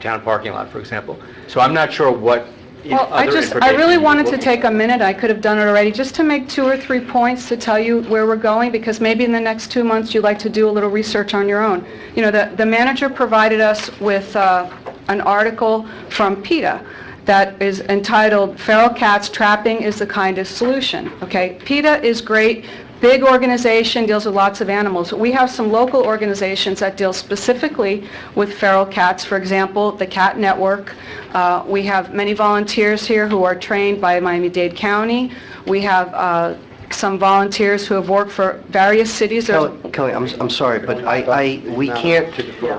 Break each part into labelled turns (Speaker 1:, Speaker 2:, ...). Speaker 1: town parking lot, for example. So I'm not sure what in-
Speaker 2: Well, I
Speaker 1: other
Speaker 2: just,
Speaker 1: information...
Speaker 2: I really
Speaker 1: you
Speaker 2: wanted
Speaker 1: will
Speaker 2: to
Speaker 1: be-
Speaker 2: take a minute, I could have done it already, just to make two or three points to tell you where we're going, because maybe in the next two months, you'd like to do a little research on your own. You know, the, the manager provided us with uh, an article from PETA that is entitled "Feral Cats Trapping is the Kindest Solution." Okay? PETA is great, big organization, deals with lots of animals. We have some local organizations that deal specifically with feral cats, for example, the Cat Network. Uh, We have many volunteers here who are trained by Miami-Dade County. We have uh, some volunteers who have worked for various cities. There's-
Speaker 3: Kelly, Kelly, I'm, I'm sorry, but I, I, we can't,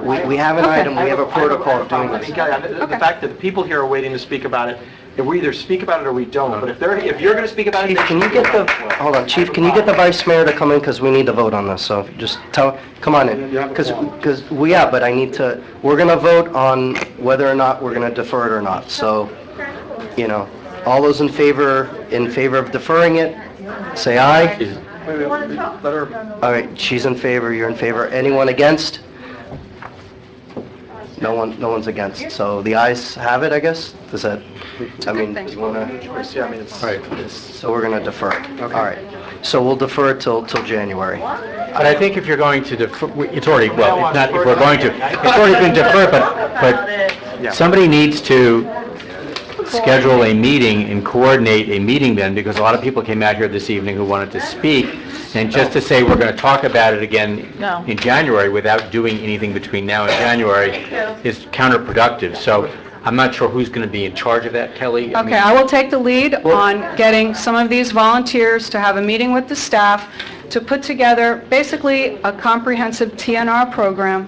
Speaker 3: we, we have an
Speaker 2: Okay.
Speaker 3: item, we have a protocol of doing
Speaker 4: I
Speaker 3: this.
Speaker 4: think, Gary, the- The
Speaker 2: Okay.
Speaker 4: fact that the people here are waiting to speak about it, if we either speak about it or we don't, but if they're, if you're going to speak about it,
Speaker 3: Chief,
Speaker 4: they
Speaker 3: can you
Speaker 4: should
Speaker 3: get
Speaker 4: speak
Speaker 3: the,
Speaker 4: about it.
Speaker 3: hold on, chief, can you get the vice mayor to come in, because we need to vote on this, so just tell, come on in. Because, because, well, yeah, but I need to, we're gonna vote on whether or not we're gonna defer it or not, so, you know, all those in favor, in favor of deferring it, say aye.
Speaker 1: Is-
Speaker 3: All right, she's in favor, you're in favor, anyone against? No one, no one's against, so the ayes have it, I guess, does that, I mean, do you wanna?
Speaker 4: Yeah, I mean, it's-
Speaker 1: All right.
Speaker 4: it's-
Speaker 3: So we're going to defer it. All right. So we'll defer it till, till January.
Speaker 1: But I think if you're going to defer, we- it's already, well, it's not, if we're going to, it's already been deferred, but,
Speaker 4: Yeah.
Speaker 1: but somebody needs to schedule a meeting and coordinate a meeting then, because a lot of people came out here this evening who wanted to speak, and just to say we're going to talk about it again
Speaker 5: No.
Speaker 1: in January without doing anything between now and January is counterproductive. So I'm not sure who's going to be in charge of that, Kelly. I mean-
Speaker 2: Okay, I will take the lead on getting some of these volunteers to have a meeting with the staff to put together basically a comprehensive TNR program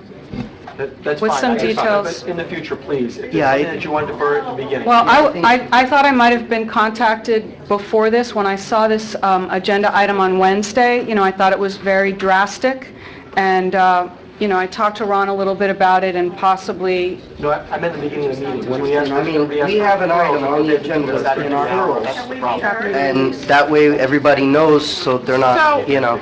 Speaker 4: that- That's fine.
Speaker 2: With some
Speaker 4: I understand, but
Speaker 2: details.
Speaker 4: In the future, please, if there's
Speaker 3: Yeah, I-
Speaker 4: something that you want to defer at the beginning.
Speaker 2: Well, I, I- I thought I might have been contacted before this, when I saw this um, agenda item on Wednesday, you know, I thought it was very drastic, and, uh, you know, I talked to Ron a little bit about it and possibly,
Speaker 4: No, I I meant the beginning of the meeting. When we ask-
Speaker 3: I mean,
Speaker 4: ask
Speaker 3: we have an
Speaker 4: for
Speaker 3: item
Speaker 4: referrals,
Speaker 3: on the
Speaker 4: they-
Speaker 3: agenda
Speaker 4: because that
Speaker 3: in
Speaker 4: could be
Speaker 3: our
Speaker 4: hours.
Speaker 3: rules.
Speaker 4: That's the problem.
Speaker 3: And that way, everybody knows, so they're not, you know,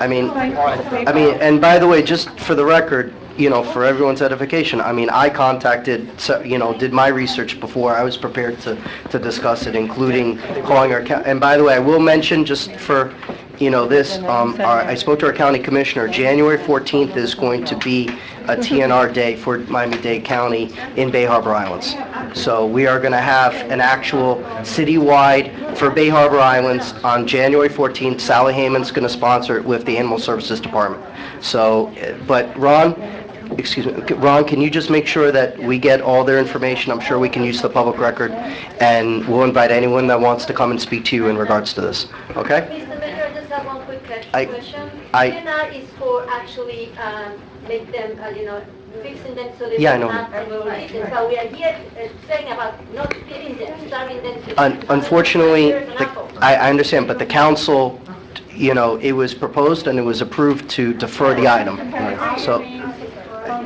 Speaker 3: I mean, I mean, and by the way, just for the record, you know, for everyone's edification, I mean, I contacted, so- you know, did my research before, I was prepared to, to discuss it, including calling our, coun- and by the way, I will mention, just for, you know, this, um, our- I spoke to our county commissioner, January 14th is going to be a TNR day for Miami-Dade County in Bay Harbor Islands. So we are going to have an actual citywide for Bay Harbor Islands on January 14th. Sally Hayman's going to sponsor it with the Animal Services Department. So, eh, but Ron, excuse me, c- Ron, can you just make sure that we get all their information? I'm sure we can use the public record, and we'll invite anyone that wants to come and speak to you in regards to this, okay?
Speaker 6: Mr. Mayor, I just have one quick que-
Speaker 3: I-
Speaker 6: question.
Speaker 3: I-
Speaker 6: TNR is for actually um, make them, uh, you know, fixing them so they
Speaker 3: Yeah, I
Speaker 6: will
Speaker 3: know.
Speaker 6: not remove it. So we are here uh, saying about not feeding them, starving them. to-
Speaker 3: Un- Unfortunately,
Speaker 6: Here's an
Speaker 3: the-
Speaker 6: apple.
Speaker 3: I I understand, but the council, you know, it was proposed and it was approved to defer the item. So,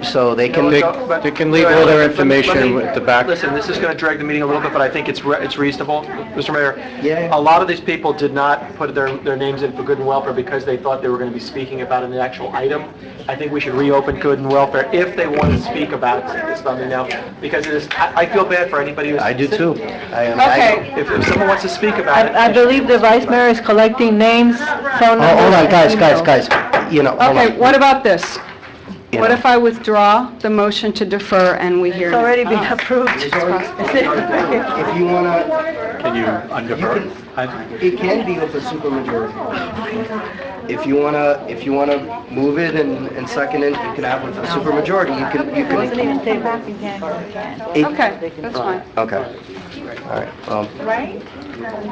Speaker 3: so they can...
Speaker 4: But-
Speaker 7: They can leave all their information at the back.
Speaker 4: Listen, this is going to drag the meeting a little bit, but I think it's, re- it's reasonable. Mr. Mayor?
Speaker 3: Yeah.
Speaker 4: A lot of these people did not put their, their names in for good and welfare because they thought they were going to be speaking about an actual item. I think we should reopen good and welfare if they want to speak about something now, because it is, I, I feel bad for anybody who's...
Speaker 3: I do too. I am-
Speaker 5: Okay.
Speaker 4: If, if someone wants to speak about it...
Speaker 5: I I believe the vice mayor is collecting names, phone
Speaker 3: Oh,
Speaker 5: numbers.
Speaker 3: Hold on,
Speaker 5: and
Speaker 3: guys, guys,
Speaker 5: emails.
Speaker 3: guys, you know, hold
Speaker 2: okay,
Speaker 3: on.
Speaker 2: what about this?
Speaker 3: You
Speaker 2: What
Speaker 3: know.
Speaker 2: if I withdraw the motion to defer and we hear? Uh-huh.
Speaker 5: It's already been approved.
Speaker 3: If you wanna,
Speaker 1: Can you undefer? I-
Speaker 3: it can be with a supermajority. If you wanna, if you wanna move it and, and second it, you can have with a supermajority, you can, you
Speaker 5: Wasn't even
Speaker 3: can...
Speaker 5: tabled in January.
Speaker 3: it-
Speaker 2: Okay, that's fine.
Speaker 3: Okay. All right, um... All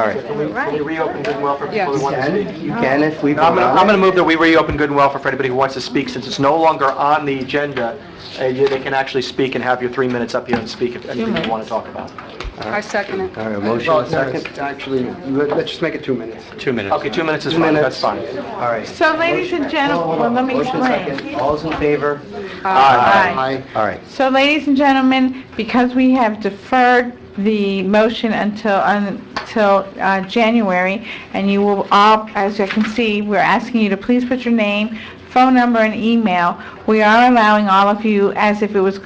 Speaker 3: right.
Speaker 4: Can we- can we reopen good and welfare for
Speaker 2: Yes.
Speaker 4: people who want to speak?
Speaker 3: You can if we...
Speaker 4: No, I'm
Speaker 3: vote
Speaker 4: gonna,
Speaker 3: on
Speaker 4: I'm
Speaker 3: it.
Speaker 4: gonna move that we reopen good and welfare for anybody who wants to speak, since it's no longer on the agenda, uh, you- they can actually speak and have your three minutes up here and speak if anything you want to talk about.
Speaker 2: I second it.
Speaker 3: All right, motion and second.
Speaker 8: Actually, let- let's just make it two minutes.
Speaker 1: Two minutes.
Speaker 4: Okay, two minutes is
Speaker 3: Two
Speaker 4: fine,
Speaker 3: minutes.
Speaker 4: that's fine.
Speaker 3: All right.
Speaker 5: So ladies and gentlemen, let me
Speaker 3: Motion
Speaker 5: explain.
Speaker 3: second. All's in favor?
Speaker 5: Aye.
Speaker 8: Aye.
Speaker 3: All right.
Speaker 5: So ladies and gentlemen, because we have deferred the motion until, until uh, January, and you will all, as you can see, we're asking you to please put your name, phone number, and email. We are allowing all of you, as if it was